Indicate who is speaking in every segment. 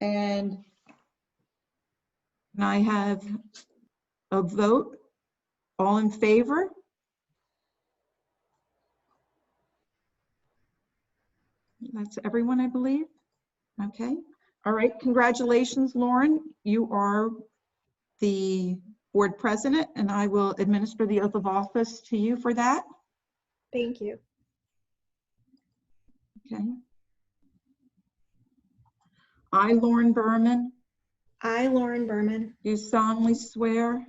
Speaker 1: And can I have a vote? All in favor? That's everyone, I believe. Okay. All right. Congratulations, Lauren. You are the board president, and I will administer the oath of office to you for that.
Speaker 2: Thank you.
Speaker 1: Okay. I, Lauren Berman,
Speaker 2: I, Lauren Berman,
Speaker 1: do solemnly swear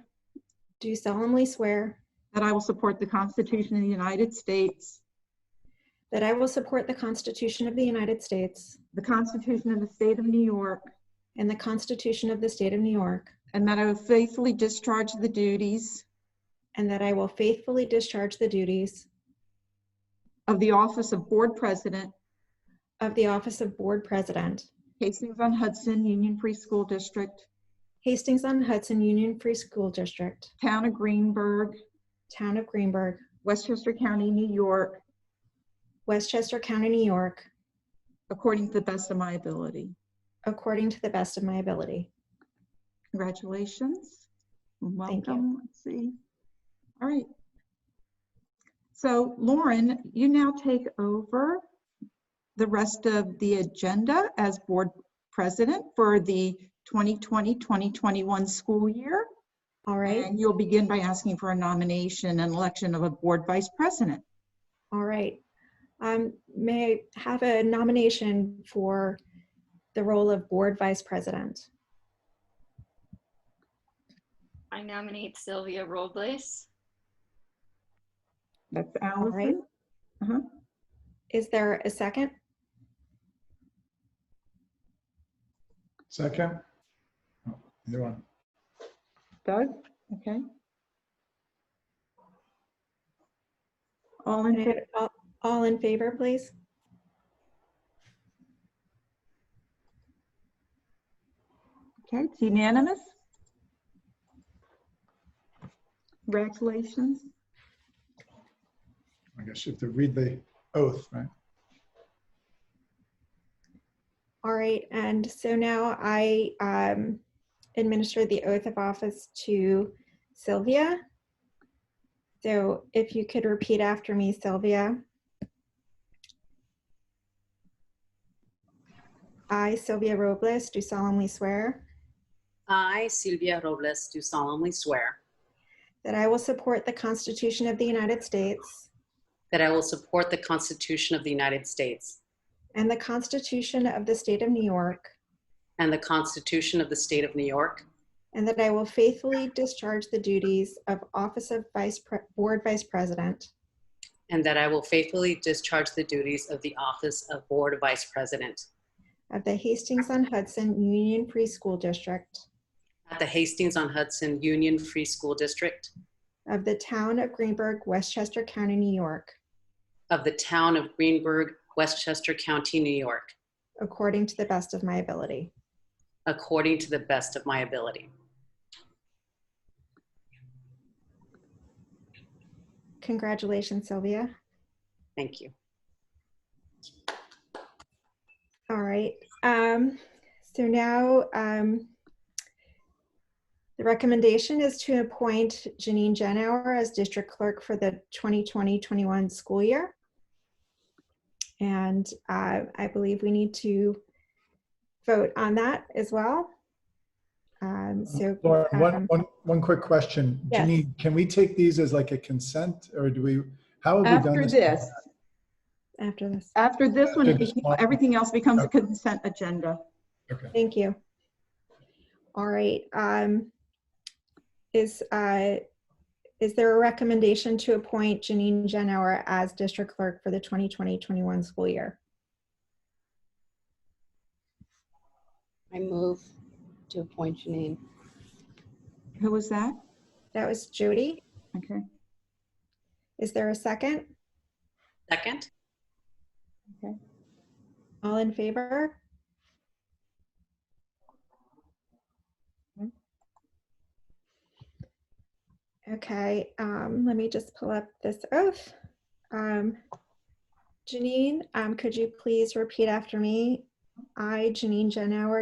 Speaker 2: do solemnly swear
Speaker 1: that I will support the Constitution of the United States,
Speaker 2: that I will support the Constitution of the United States
Speaker 1: the Constitution of the State of New York,
Speaker 2: and the Constitution of the State of New York,
Speaker 1: and that I will faithfully discharge the duties
Speaker 2: and that I will faithfully discharge the duties
Speaker 1: of the office of Board President,
Speaker 2: of the Office of Board President,
Speaker 1: Hastings-on-Hudson Union Free School District,
Speaker 2: Hastings-on-Hudson Union Free School District,
Speaker 1: Town of Greenberg,
Speaker 2: Town of Greenberg,
Speaker 1: Westchester County, New York,
Speaker 2: Westchester County, New York,
Speaker 1: according to the best of my ability.
Speaker 2: according to the best of my ability.
Speaker 1: Congratulations.
Speaker 2: Thank you.
Speaker 1: Welcome. Let's see. All right. So Lauren, you now take over the rest of the agenda as board president for the 2020-2021 school year.
Speaker 2: All right,
Speaker 1: And you'll begin by asking for a nomination and election of a board vice president.
Speaker 2: all right. Um, May I have a nomination for the role of Board Vice President?
Speaker 3: I nominate Sylvia Robles.
Speaker 1: That's
Speaker 2: right.
Speaker 1: Allison.
Speaker 2: Is there a second?
Speaker 4: Second? Oh, Either one.
Speaker 1: Doug? Okay. All in
Speaker 2: Can I
Speaker 1: favor?
Speaker 2: have all- All in favor, please?
Speaker 1: Okay, it's unanimous. Congratulations.
Speaker 4: I guess you have to read the oath, right?
Speaker 2: All right, and so now I um, administer the oath of office to Sylvia. So if you could repeat after me, Sylvia. I, Sylvia Robles, do solemnly swear
Speaker 5: I, Sylvia Robles, do solemnly swear
Speaker 2: that I will support the Constitution of the United States
Speaker 5: that I will support the Constitution of the United States
Speaker 2: and the Constitution of the State of New York,
Speaker 5: and the Constitution of the State of New York,
Speaker 2: And that I will faithfully discharge the duties of Office of Vice, Pre- Board Vice President
Speaker 5: and that I will faithfully discharge the duties of the Office of Board Vice President
Speaker 2: of the Hastings-on-Hudson Union Free School District
Speaker 5: at the Hastings-on-Hudson Union Free School District
Speaker 2: of the Town of Greenberg, Westchester County, New York,
Speaker 5: of the Town of Greenberg, Westchester County, New York,
Speaker 2: according to the best of my ability.
Speaker 5: according to the best of my ability.
Speaker 2: Congratulations, Sylvia.
Speaker 5: Thank you.
Speaker 2: All right. Um, so now um, the recommendation is to appoint Janine Genauer as district clerk for the 2020-21 school year. And uh, I believe we need to vote on that as well. Um, so
Speaker 4: Lauren, Uh, one,
Speaker 2: um,
Speaker 4: one, one quick question.
Speaker 2: Yes.
Speaker 4: Janine, can we take these as like a consent or do we, how have we done
Speaker 1: After
Speaker 4: this?
Speaker 1: this,
Speaker 2: after this,
Speaker 1: after this one,
Speaker 4: After this one.
Speaker 1: everything else becomes a consent agenda.
Speaker 2: thank you. All right. Um, is uh, Is there a recommendation to appoint Janine Genauer as district clerk for the 2020-21 school year?
Speaker 6: I move to appoint Janine.
Speaker 1: Who was that?
Speaker 2: That was Jody.
Speaker 1: Okay.
Speaker 2: Is there a second?
Speaker 5: Second?
Speaker 2: All in favor? Okay, um, let me just pull up this oath. Um, Janine, um, could you please repeat after me? I, Janine Genauer,